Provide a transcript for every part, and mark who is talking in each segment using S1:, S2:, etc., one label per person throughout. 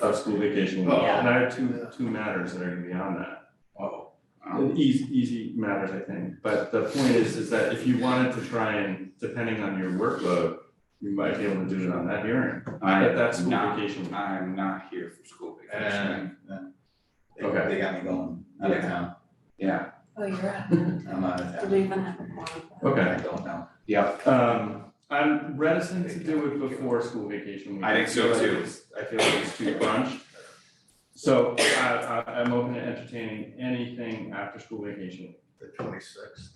S1: of school vacation week.
S2: Yeah.
S1: And I have two, two matters that are gonna be on that.
S3: Oh.
S1: And easy, easy matters, I think. But the point is, is that if you wanted to try and, depending on your workload, you might be able to do it on that hearing,
S3: I,
S1: at that school
S3: not-
S1: vacation. week.
S3: I'm not here for school vacation,
S4: And- and They
S1: Okay.
S4: they got me going out of
S3: Uh, Yeah.
S4: town,
S3: yeah,
S2: Oh, you're right. Do
S4: I'm out of
S2: we
S4: town,
S2: even have a quorum?
S1: Okay,
S4: I don't know.
S3: yeah,
S1: um, I'm reticent to do it before school vacation week.
S3: I think so
S1: feel like
S3: too.
S1: it's- I feel like it's too crunched. So I, I, I'm open to entertaining anything after school vacation. week.
S4: The twenty-sixth.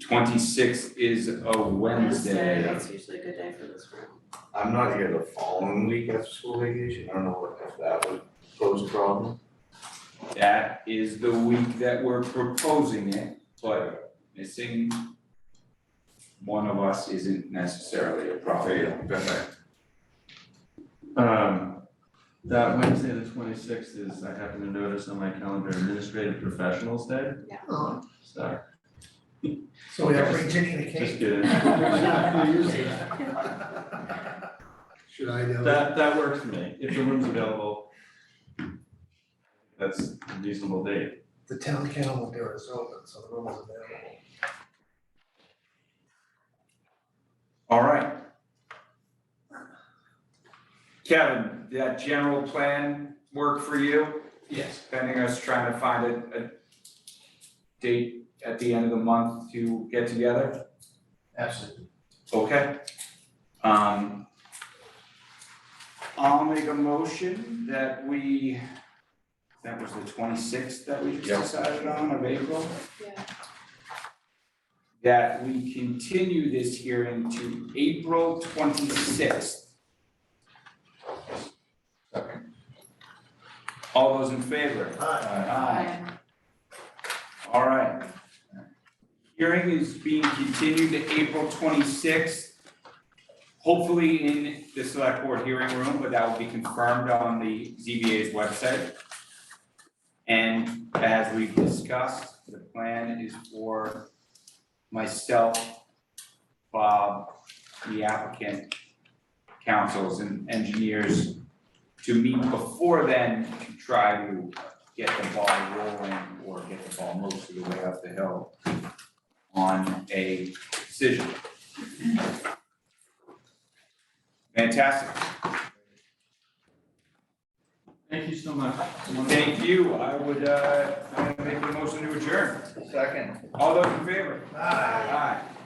S3: twenty-sixth is a Wednesday.
S2: That's usually a good day for this room.
S5: I'm not here the following week after school vacation, I don't know what, if that would pose a problem.
S3: That is the week that we're proposing it, but missing one of us isn't necessarily a problem.
S1: Um, that Wednesday, the twenty-sixth is, I happen to notice on my calendar, Administrative Professionals Day,
S6: Oh,
S1: so
S6: So we have to bring Ginny the
S1: just
S6: cake.
S1: kidding.
S6: Should I do? it?
S1: That, that works for me, if the room's available. That's a reasonable date.
S6: The town kennel door is open, so the room is available.
S3: All right. Kevin, that general plan work for you? Yes. Pending us trying to find a, a date at the end of the month to get together?
S6: Absolutely.
S3: Okay. Um, I'll make a motion that we, that was the twenty-sixth that we
S5: Yeah.
S3: just decided on of April?
S2: Yeah.
S3: That we continue this hearing to April twenty-sixth. All those in favor? Aye. All right. Hearing is being continued to April twenty-sixth. Hopefully in the select board hearing room, but that will be confirmed on the ZBA's website. And as we've discussed, the plan is for myself, Bob, the applicant, councils and engineers to meet before then to try to get the ball rolling or get the ball most of the way up the hill on a decision. Fantastic.
S1: Thank you so much.
S3: Thank you. I would, uh, I'm gonna make a motion to adjourn.
S4: Second.
S3: All those in favor?
S6: Aye.
S3: Aye.